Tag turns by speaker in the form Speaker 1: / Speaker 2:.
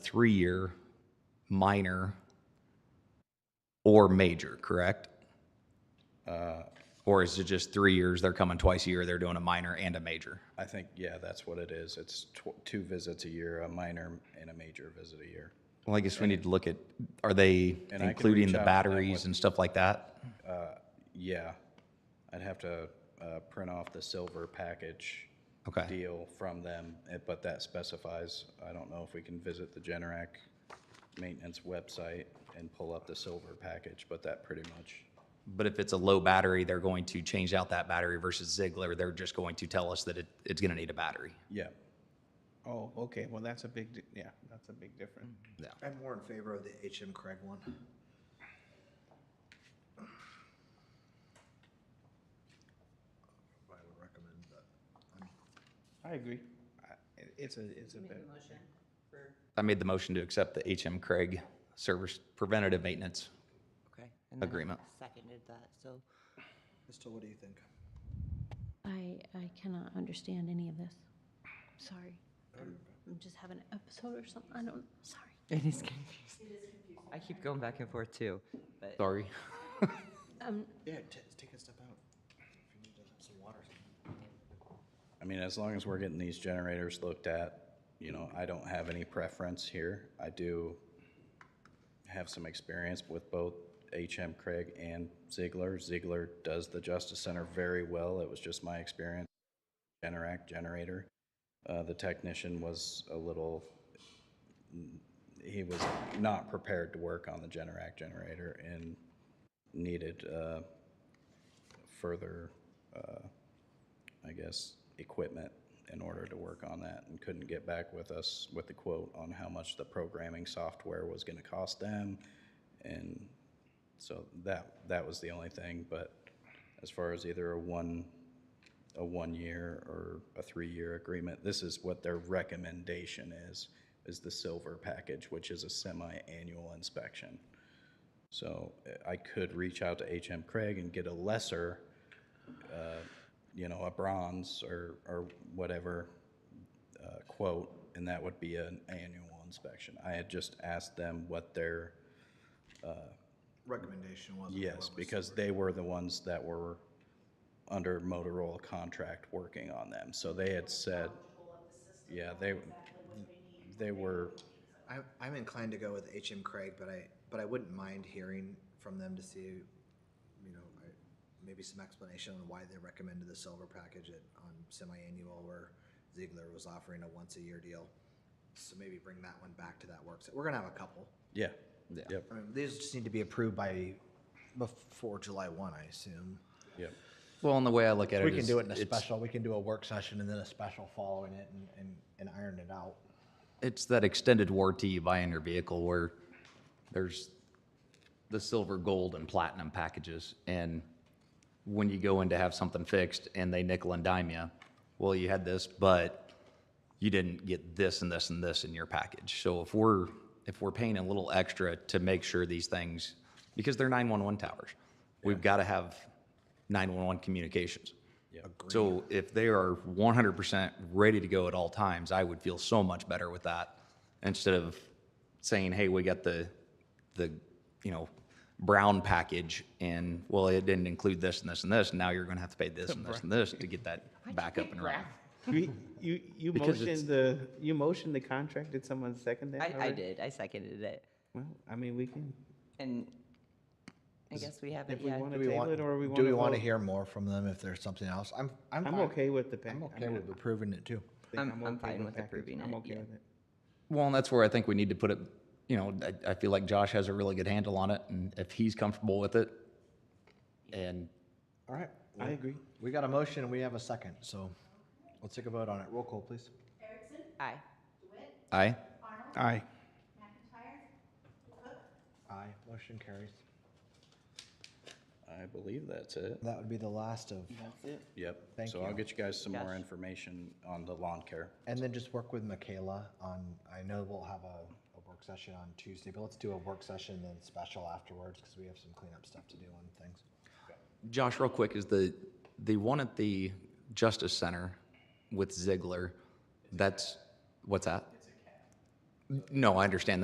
Speaker 1: three year, minor, or major, correct? Uh, Or is it just three years? They're coming twice a year, they're doing a minor and a major?
Speaker 2: I think, yeah, that's what it is. It's tw- two visits a year, a minor and a major visit a year.
Speaker 1: Well, I guess we need to look at, are they
Speaker 2: I can
Speaker 1: including
Speaker 2: reach
Speaker 1: the
Speaker 2: out to them
Speaker 1: batteries and stuff like that?
Speaker 2: Yeah, I'd have to uh, print off the silver package
Speaker 1: Okay,
Speaker 2: deal from them, eh, but that specifies, I don't know if we can visit the Generac maintenance website and pull up the silver package, but that pretty much,
Speaker 1: but if it's a low battery, they're going to change out that battery versus Ziegler, they're just going to tell us that it, it's gonna need a battery.
Speaker 2: yeah.
Speaker 3: Oh, okay, well, that's a big, di- yeah, that's a big difference.
Speaker 1: Mm-hmm.
Speaker 4: I'm more in favor of the HM Craig one. I would recommend that.
Speaker 3: I agree. I- it- It's a, it's a better.
Speaker 1: I made the motion to accept the HM Craig Service Preventative Maintenance
Speaker 5: Okay. and then I
Speaker 1: Agreement.
Speaker 5: Seconded that, so.
Speaker 4: Crystal, what do you think?
Speaker 6: I, I cannot understand any of this. Sorry. I'm I'm just having an episode or something. I don't, sorry.
Speaker 5: It is confusing. I keep going back and forth too, but
Speaker 1: Sorry.
Speaker 4: Yeah, ta- take a step out. If you need to, some water.
Speaker 2: I mean, as long as we're getting these generators looked at, you know, I don't have any preference here. I do have some experience with both HM Craig and Ziegler. Ziegler does the Justice Center very well. It was just my experience. Generac generator. Uh, the technician was a little, he was not prepared to work on the Generac generator and needed uh, further uh, I guess, equipment in order to work on that and couldn't get back with us with the quote on how much the programming software was gonna cost them. And so that, that was the only thing, but as far as either a one, a one-year or a three-year agreement, this is what their recommendation is, is the silver package, which is a semi-annual inspection. So eh, I could reach out to HM Craig and get a lesser you know, a bronze or, or whatever uh, quote, and that would be an annual inspection. I had just asked them what their,
Speaker 4: Recommendation was.
Speaker 2: yes, because they were the ones that were under Motorola contract working on them. So they had said, yeah, they, they were,
Speaker 4: I'm, I'm inclined to go with HM Craig, but I, but I wouldn't mind hearing from them to see, you know, I- maybe some explanation on why they recommended the silver package at, on semi-annual where Ziegler was offering a once-a-year deal. So maybe bring that one back to that works. We're gonna have a couple.
Speaker 2: yeah, yep,
Speaker 4: I mean, these just need to be approved by, before July one, I assume.
Speaker 2: yep.
Speaker 1: Well, and the way I look at it
Speaker 4: We can
Speaker 1: is
Speaker 4: do it in a
Speaker 1: it's-
Speaker 4: special, we can do a work session and then a special following it and, and, and iron it out.
Speaker 1: It's that extended warranty you buy in your vehicle where there's the silver, gold, and platinum packages. And when you go in to have something fixed and they nickel and dime you, well, you had this, but you didn't get this and this and this in your package. So if we're, if we're paying a little extra to make sure these things, because they're 911 towers, we've got to have 911 communications. So if they are 100% ready to go at all times, I would feel so much better with that instead of saying, hey, we got the, the, you know, brown package and, well, it didn't include this and this and this, and now you're going to have to pay this and this and this to get that back up and running.
Speaker 3: You, you, you
Speaker 1: Because it's-
Speaker 3: motioned the, you motioned the contract, did someone second that?
Speaker 5: I, I
Speaker 3: already?
Speaker 5: did, I seconded it.
Speaker 3: Well, I mean, we can,
Speaker 5: And I guess we haven't
Speaker 3: if we
Speaker 5: yet.
Speaker 3: want to
Speaker 4: Do we
Speaker 3: table
Speaker 4: want,
Speaker 3: it or we want
Speaker 4: do we want to hear more from them if there's something else? I'm, I'm.
Speaker 3: I'm
Speaker 4: fine.
Speaker 3: okay with the pack.
Speaker 4: I'm
Speaker 3: I
Speaker 4: okay
Speaker 3: mean,
Speaker 4: with approving it too.
Speaker 3: I think
Speaker 5: I'm- I'm fine with
Speaker 3: package.
Speaker 5: approving
Speaker 3: I'm
Speaker 5: it,
Speaker 3: okay
Speaker 5: yeah.
Speaker 3: with it.
Speaker 1: Well, and that's where I think we need to put it, you know, I, I feel like Josh has a really good handle on it, and if he's comfortable with it, and
Speaker 4: All right.
Speaker 3: I agree.
Speaker 4: We got a motion and we have a second, so let's take a vote on it. Roll call, please.
Speaker 5: Aye.
Speaker 1: I,
Speaker 3: Aye.
Speaker 4: Aye, motion carries.
Speaker 2: I believe that's it,
Speaker 4: That would be the last of,
Speaker 2: yep.
Speaker 4: Thank
Speaker 2: So I'll
Speaker 4: you.
Speaker 2: get you guys some more
Speaker 5: Yes.
Speaker 2: information on the lawn care.
Speaker 4: and then just work with Michaela on, I know we'll have a, a work session on Tuesday, but let's do a work session then special afterwards because we have some cleanup stuff to do on things.
Speaker 1: Josh, real quick, is the, the one at the Justice Center with Ziegler, that's, what's that? No, I understand that.